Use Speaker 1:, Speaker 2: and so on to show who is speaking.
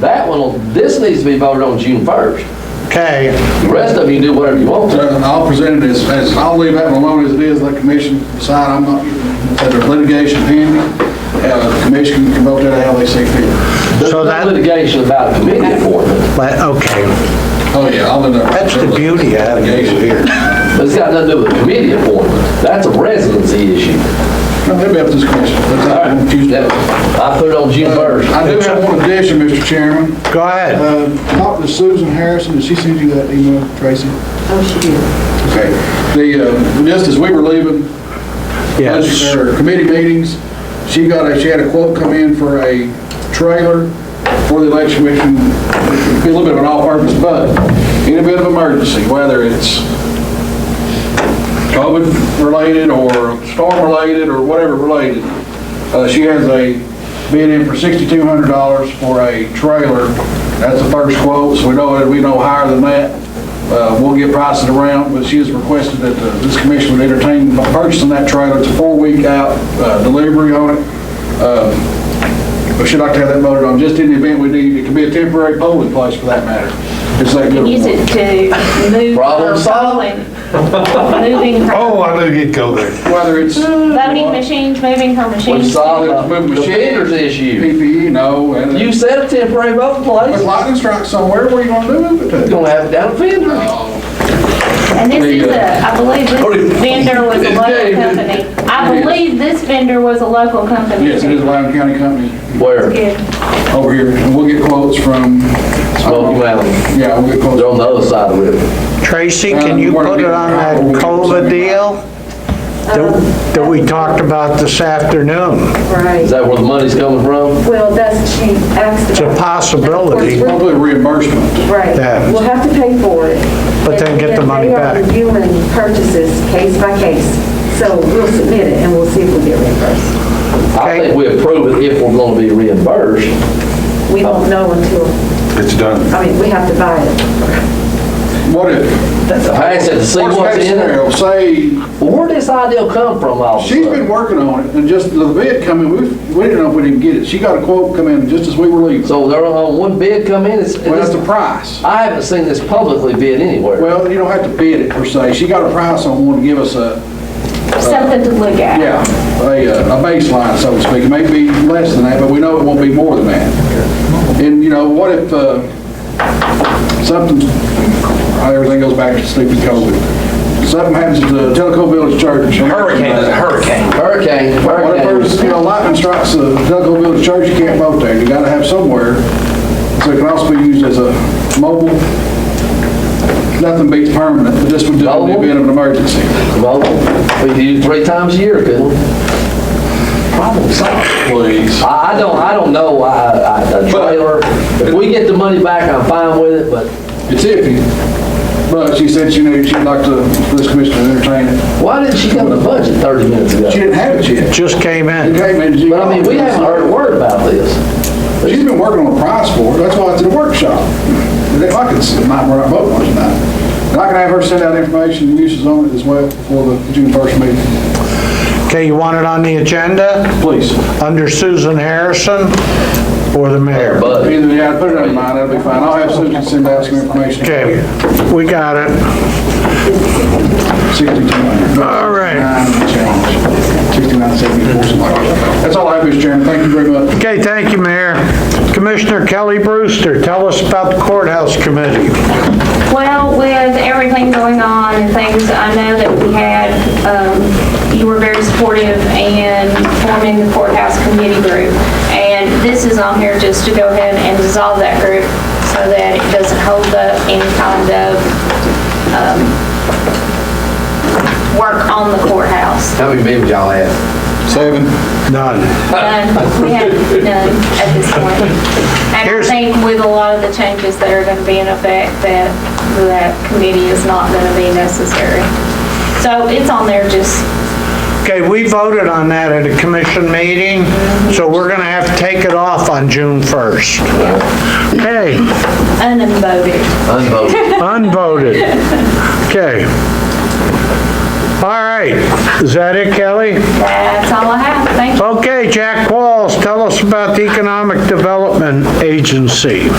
Speaker 1: That one, this needs to be voted on June 1st.
Speaker 2: Okay,
Speaker 1: The rest of you can do whatever you want to.
Speaker 3: Uh, I'll present it as, as, I'll leave that one alone as it is, let the commission decide, I'm not, that there's litigation pending, uh, the commission can vote that how they see fit.
Speaker 1: There's no
Speaker 2: So that-
Speaker 1: litigation about a committee appointment,
Speaker 2: but, okay,
Speaker 3: Oh, yeah, I'll end up.
Speaker 2: That's the beauty of having
Speaker 3: Litigation here.
Speaker 1: but it's got nothing to do with a committee appointment. That's a residency issue.
Speaker 3: No, Maybe after this commission, let's
Speaker 1: All
Speaker 3: not
Speaker 1: right,
Speaker 3: confuse
Speaker 1: that-
Speaker 3: them.
Speaker 1: I put it on June 1st.
Speaker 3: I do have one addition, Mr. Chairman.
Speaker 2: go ahead.
Speaker 3: Uh, Talked to Susan Harrison, did she send you that email, Tracy?
Speaker 4: Oh, she did.
Speaker 3: Okay. The, uh, just as we were leaving, budget-
Speaker 2: Yes,
Speaker 3: or committee meetings, she got a, she had a quote come in for a trailer for the election commission, It'd be a little bit of an all-purpose, but in a bit of emergency, whether it's COVID-related or storm-related or whatever related, uh, she has a bid in for $6,200 for a trailer. That's the first quote, so we know, that we know higher than that. Uh, We'll get prices around, but she has requested that uh, this commission would entertain purchasing that trailer. It's a four-week out uh, delivery on it. Um, But she'd like to have that voted on, just in the event we need, it could be a temporary polling place for that matter. It's that good.
Speaker 4: Use it to move.
Speaker 1: Problem
Speaker 4: her
Speaker 1: solved.
Speaker 4: polling, Moving her,
Speaker 2: I knew you'd go there.
Speaker 3: Whether it's
Speaker 4: voting machines, moving her
Speaker 1: We
Speaker 4: machines.
Speaker 1: solved
Speaker 3: Let's
Speaker 1: the
Speaker 3: move machines.
Speaker 1: vendors issue.
Speaker 3: PPE, E, no. and-
Speaker 1: You said a temporary voting
Speaker 3: With
Speaker 1: place.
Speaker 3: lightning strike somewhere, where you going to move it
Speaker 1: You're
Speaker 3: to?
Speaker 1: gonna have it down at Fender.
Speaker 3: Uh,
Speaker 4: And this is a, I believe this vendor was a
Speaker 1: Okay.
Speaker 4: local company. I believe this vendor was a local company.
Speaker 3: Yes, it is a Loudoun County company
Speaker 1: Where?
Speaker 4: Good.
Speaker 3: over here. And we'll get quotes from.
Speaker 1: Smoky Mountain.
Speaker 3: Yeah, we'll get quotes.
Speaker 1: They're on the other side of the river.
Speaker 2: Tracy, can you put it on that COLA deal that that we talked about this afternoon?
Speaker 1: Is
Speaker 5: Right,
Speaker 1: that where the money's coming from?
Speaker 5: well, that's, she asked
Speaker 2: It's a
Speaker 5: about.
Speaker 2: possibility.
Speaker 3: Probably reimbursement.
Speaker 5: Right,
Speaker 2: Yeah.
Speaker 5: we'll have to pay for it.
Speaker 2: But then get the money back.
Speaker 5: And They are reviewing purchases case by case, so we'll submit it and we'll see if we get reimbursed.
Speaker 1: I
Speaker 2: Okay.
Speaker 1: think we approve it if we're gonna be reimbursed.
Speaker 5: We won't know until,
Speaker 6: Oh. It's done.
Speaker 5: I mean, we have to buy it.
Speaker 3: What if,
Speaker 1: I said to see
Speaker 3: worst
Speaker 1: what's
Speaker 3: case
Speaker 1: in it.
Speaker 3: scenario, say,
Speaker 1: Well, where'd this idea come from all of a
Speaker 3: she's been
Speaker 1: sudden?
Speaker 3: working on it, and just the bid come in, we, we didn't know if we didn't get it. She got a quote come in just as we were leaving.
Speaker 1: So there, uh, one bid come in, it's,
Speaker 3: Well, that's the
Speaker 1: it's-
Speaker 3: price.
Speaker 1: I haven't seen this publicly bid anywhere.
Speaker 3: Well, you don't have to bid it per se. She got a price on one to give us a,
Speaker 4: Something to look at.
Speaker 3: yeah, a, uh, a baseline, so to speak. It may be less than that, but we know it won't be more than that. And, you know, what if, uh, something, everything goes back to stupid COVID. Something happens to the Telco Village Church.
Speaker 7: Hurricane is a hurricane.
Speaker 1: Hurricane,
Speaker 3: What if
Speaker 1: hurricane.
Speaker 3: there's, you know, lightning strikes the Delco Village Church, you can't vote there, you gotta have somewhere. So it can also be used as a mobile, nothing beats permanent, but this would do in the
Speaker 1: Mobile?
Speaker 3: event of an emergency.
Speaker 1: Well, we do it three times a year, couldn't we? Problem solved.
Speaker 3: Please.
Speaker 1: I, I don't, I don't know, I, I, a trailer, if we get the money back, I'm fine with it, but
Speaker 3: It's iffy, but she said she knew she'd like to, for this commission to entertain it.
Speaker 1: why didn't she come to budget thirty minutes ago?
Speaker 3: She didn't have it yet.
Speaker 2: Just came
Speaker 3: It
Speaker 2: in.
Speaker 3: came in, she-
Speaker 1: But I mean, we haven't heard a word about this.
Speaker 3: She's been working on a price for it, that's why it's in the workshop. If I could, it might, we're not voting on it tonight. And I can have her send out information, and uses on it as well for the June first meeting,
Speaker 2: Okay, you want it on the agenda
Speaker 3: please.
Speaker 2: under Susan Harrison or the mayor?
Speaker 1: But
Speaker 3: Either, yeah, put it on mine, that'll be fine. I'll have Susan send out some information.
Speaker 2: Okay, we got it.
Speaker 3: 62.
Speaker 2: All right.
Speaker 3: Sixty-nine, seventy-four, something like that. That's all I have, Mr. Chairman. Thank you very much.
Speaker 2: Okay, thank you, Mayor. Commissioner Kelly Brewster, tell us about the courthouse committee.
Speaker 4: Well, with everything going on and things, I know that we had, um, you were very supportive in forming the courthouse committee group. And this is on here just to go ahead and dissolve that group so that it doesn't hold up any kind of um, work on the courthouse.
Speaker 7: How many babies y'all have?
Speaker 3: Seven.
Speaker 2: None.
Speaker 4: None, we have none at this point. And I
Speaker 2: Here's-
Speaker 4: think with a lot of the changes that are gonna be in effect, that, that committee is not gonna be necessary. So it's on there just,
Speaker 2: Okay, we voted on that at a commission meeting, so we're gonna have to take it off on June 1st. Okay,
Speaker 4: unvoted.
Speaker 1: unvoted.
Speaker 2: unvoted. Okay. All right, is that it, Kelly?
Speaker 4: That's all I have, thank you.
Speaker 2: Okay, Jack Walls, tell us about about the Economic Development Agency?